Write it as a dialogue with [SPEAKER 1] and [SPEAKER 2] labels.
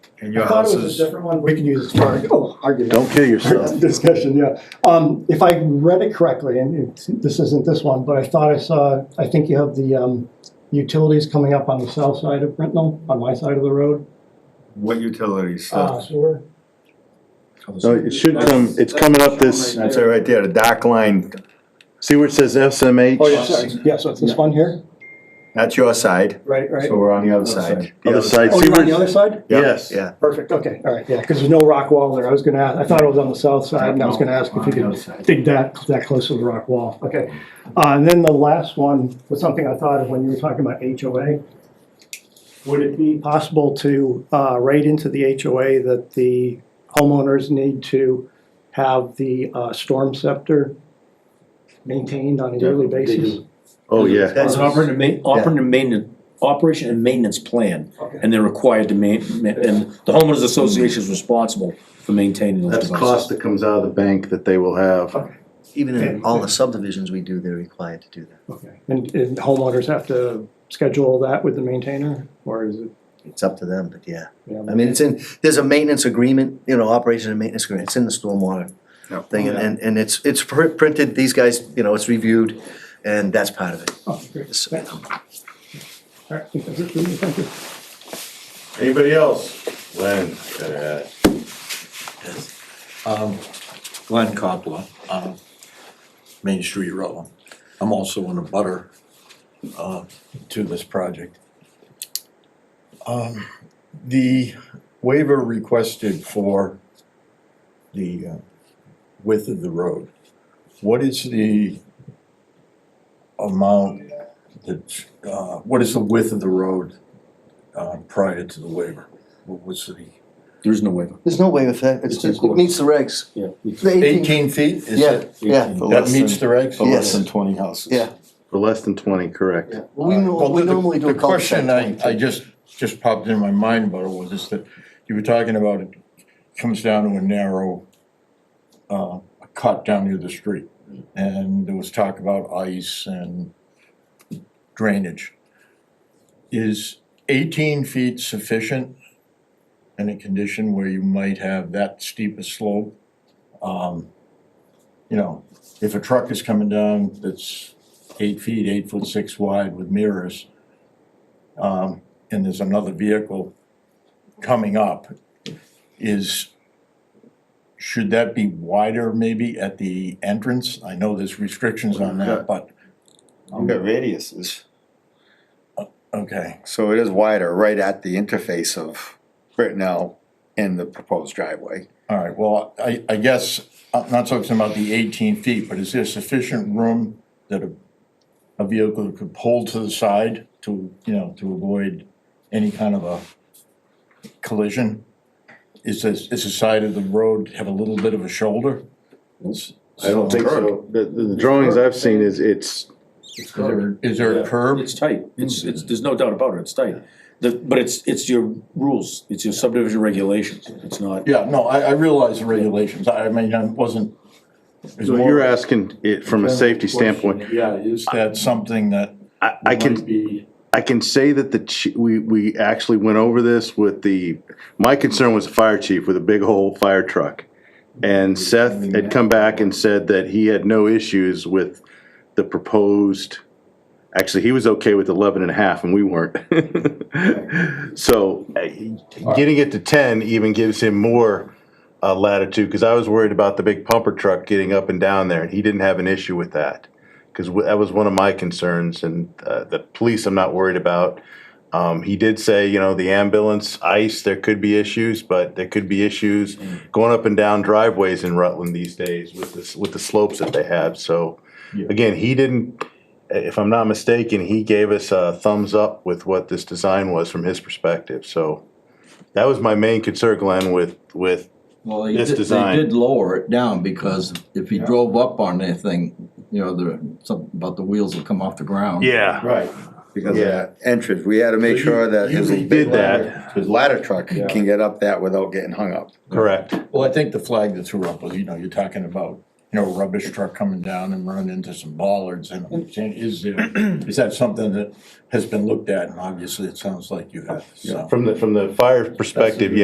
[SPEAKER 1] And
[SPEAKER 2] I
[SPEAKER 1] your
[SPEAKER 2] thought
[SPEAKER 1] house
[SPEAKER 2] it was
[SPEAKER 1] is,
[SPEAKER 2] a different one, we can use it for, oh, argument.
[SPEAKER 3] Don't kill yourself.
[SPEAKER 2] Discussion, yeah. Um, if I read it correctly, and it's- this isn't this one, but I thought I saw, I think you have the, um, utilities coming up on the south side of Brittenell, on my side of the road.
[SPEAKER 1] what utilities
[SPEAKER 3] Oh.
[SPEAKER 2] Uh,
[SPEAKER 1] stuff?
[SPEAKER 2] sewer.
[SPEAKER 3] No, it should come, it's coming up this,
[SPEAKER 1] That's it right there, the dark line,
[SPEAKER 3] see where it says SMH?
[SPEAKER 2] Oh, yeah, sorry, yeah, so it's this one here?
[SPEAKER 1] that's your side,
[SPEAKER 2] Right, right.
[SPEAKER 1] so we're on the other
[SPEAKER 4] Other
[SPEAKER 1] side.
[SPEAKER 4] side.
[SPEAKER 1] The
[SPEAKER 3] Other side,
[SPEAKER 2] Oh,
[SPEAKER 3] see
[SPEAKER 2] you're on
[SPEAKER 3] where,
[SPEAKER 2] the other side?
[SPEAKER 1] Yeah,
[SPEAKER 3] yes.
[SPEAKER 1] Yeah,
[SPEAKER 2] Perfect, okay, all right, yeah, because there's no rock wall there, I was gonna ask, I thought it was on the south side, and I was gonna ask if you
[SPEAKER 4] On the other
[SPEAKER 2] could
[SPEAKER 4] side.
[SPEAKER 2] dig that, that close to the rock wall, okay. Uh, and then the last one was something I thought of when you were talking about HOA. Would it be possible to, uh, write into the HOA that the homeowners need to have the, uh, storm scepter maintained on a yearly
[SPEAKER 4] Yeah, they
[SPEAKER 2] basis?
[SPEAKER 4] do.
[SPEAKER 3] Oh, yeah.
[SPEAKER 4] That's an operating main, operating and maintenance, operation and maintenance plan,
[SPEAKER 2] Okay.
[SPEAKER 4] and they're required to main, ma- and the homeowners association is responsible for maintaining those
[SPEAKER 3] That's
[SPEAKER 4] devices.
[SPEAKER 3] cost that comes out of the bank that they will have.
[SPEAKER 5] Even in all the subdivisions we do, they're required to do that.
[SPEAKER 2] Okay, and, and homeowners have to schedule that with the maintainer, or is it?
[SPEAKER 5] It's up to them, but yeah.
[SPEAKER 2] yeah,
[SPEAKER 5] I mean, it's in, there's a maintenance agreement, you know, operation and maintenance agreement, it's in the stormwater
[SPEAKER 1] Yep.
[SPEAKER 5] thing,
[SPEAKER 6] Oh,
[SPEAKER 5] and- and, and it's, it's pr- printed, these guys, you know, it's reviewed, and that's part of it.
[SPEAKER 2] Oh, great.
[SPEAKER 5] So,
[SPEAKER 2] Thanks. All right, I think that's it for me. Thank you.
[SPEAKER 3] Anybody else? Len, gotta ask.
[SPEAKER 7] Um, Glenn Coppola, uh, Main Street Rutland. I'm also in a butter, uh, to this project. Um, the waiver requested for the uh, width of the road, what is the amount that, uh, what is the width of the road, uh, prior to the waiver? What was the?
[SPEAKER 4] There is no waiver.
[SPEAKER 5] There's no way with that, it's,
[SPEAKER 4] It's in
[SPEAKER 5] it
[SPEAKER 4] court.
[SPEAKER 5] meets the regs.
[SPEAKER 4] Yeah.
[SPEAKER 5] The 18
[SPEAKER 7] Eighteen feet, is
[SPEAKER 5] Yeah,
[SPEAKER 7] it?
[SPEAKER 5] yeah. for
[SPEAKER 7] That
[SPEAKER 5] less
[SPEAKER 7] meets the
[SPEAKER 5] than-
[SPEAKER 7] regs?
[SPEAKER 5] for less than
[SPEAKER 7] twenty houses.
[SPEAKER 5] Yeah.
[SPEAKER 3] For less than twenty, correct.
[SPEAKER 5] yeah. We
[SPEAKER 7] Uh,
[SPEAKER 5] nor-
[SPEAKER 7] Well,
[SPEAKER 5] we
[SPEAKER 7] the- the-
[SPEAKER 5] normally do a
[SPEAKER 7] The question I,
[SPEAKER 5] cul-de-sac.
[SPEAKER 7] I just, just popped into my mind about it was is that you were talking about it comes down to a narrow uh, cut down near the street. And there was talk about ice and drainage. Is eighteen feet sufficient in a condition where you might have that steep a slope? Um, You know, if a truck is coming down that's eight feet, eight foot six wide with mirrors, um, and there's another vehicle coming up, is, should that be wider maybe at the entrance? I know there's restrictions on that, but,
[SPEAKER 6] We've got radiuses,
[SPEAKER 7] okay,
[SPEAKER 6] so it is wider right at the interface of Brittenell and the proposed driveway.
[SPEAKER 7] all right, well, I, I guess, I'm not talking about the eighteen feet, but is there sufficient room that a, a vehicle could pull to the side to, you know, to avoid any kind of a collision? Is this, is the side of the road have a little bit of a shoulder? Is-
[SPEAKER 3] I don't think so. The, the drawings I've seen is it's,
[SPEAKER 7] Is there, is there a curb?
[SPEAKER 4] It's tight, it's, it's, there's no doubt about it, it's tight. The, but it's, it's your rules, it's your subdivision regulations, it's not.
[SPEAKER 7] Yeah, no, I, I realize the regulations, I, I mean, I wasn't. it's
[SPEAKER 3] so
[SPEAKER 7] more-
[SPEAKER 3] you're asking it from a safety standpoint.
[SPEAKER 7] Yeah, is that something that
[SPEAKER 3] I, I can.
[SPEAKER 7] might be,
[SPEAKER 3] I can say that the, chi- we, we actually went over this with the, my concern was the fire chief with a big old fire truck. And
[SPEAKER 7] Mm-hmm.
[SPEAKER 3] Seth had come back and said that he had no issues with the proposed, actually, he was okay with eleven and a half and we weren't. So, uh, getting it to ten even gives him more uh, latitude, cause I was worried about the big pumper truck getting up and down there, and he didn't have an issue with that because that was one of my concerns, and uh, the police I'm not worried about. Um, he did say, you know, the ambulance, ICE, there could be issues, but there could be issues going up and down driveways in Rutland these days with this, with the slopes that they have, so.
[SPEAKER 7] Yeah.
[SPEAKER 3] Again, he didn't, if I'm not mistaken, he gave us a thumbs up with what this design was from his perspective, so. That was my main concern, Glenn, with, with,
[SPEAKER 8] Well, they
[SPEAKER 3] this
[SPEAKER 8] did, they
[SPEAKER 3] design.
[SPEAKER 8] did lower it down because if he drove up on anything, you know, there, something about the wheels will come off the ground.
[SPEAKER 3] yeah,
[SPEAKER 7] right,
[SPEAKER 6] Because of
[SPEAKER 3] Yeah.
[SPEAKER 6] that entrance, we had to make
[SPEAKER 7] So you-
[SPEAKER 6] sure that his
[SPEAKER 7] you
[SPEAKER 3] did
[SPEAKER 6] big ladder,
[SPEAKER 3] that.
[SPEAKER 6] his ladder truck
[SPEAKER 7] Yeah.
[SPEAKER 6] can get up that without getting hung up.
[SPEAKER 3] correct.
[SPEAKER 7] well, I think the flag that threw up was, you know, you're talking about, you know, a rubbish truck coming down and running into some bollards and I'm saying, is there, is that something that has been looked at, and obviously it sounds like you have, so.
[SPEAKER 3] From the, from the fire perspective,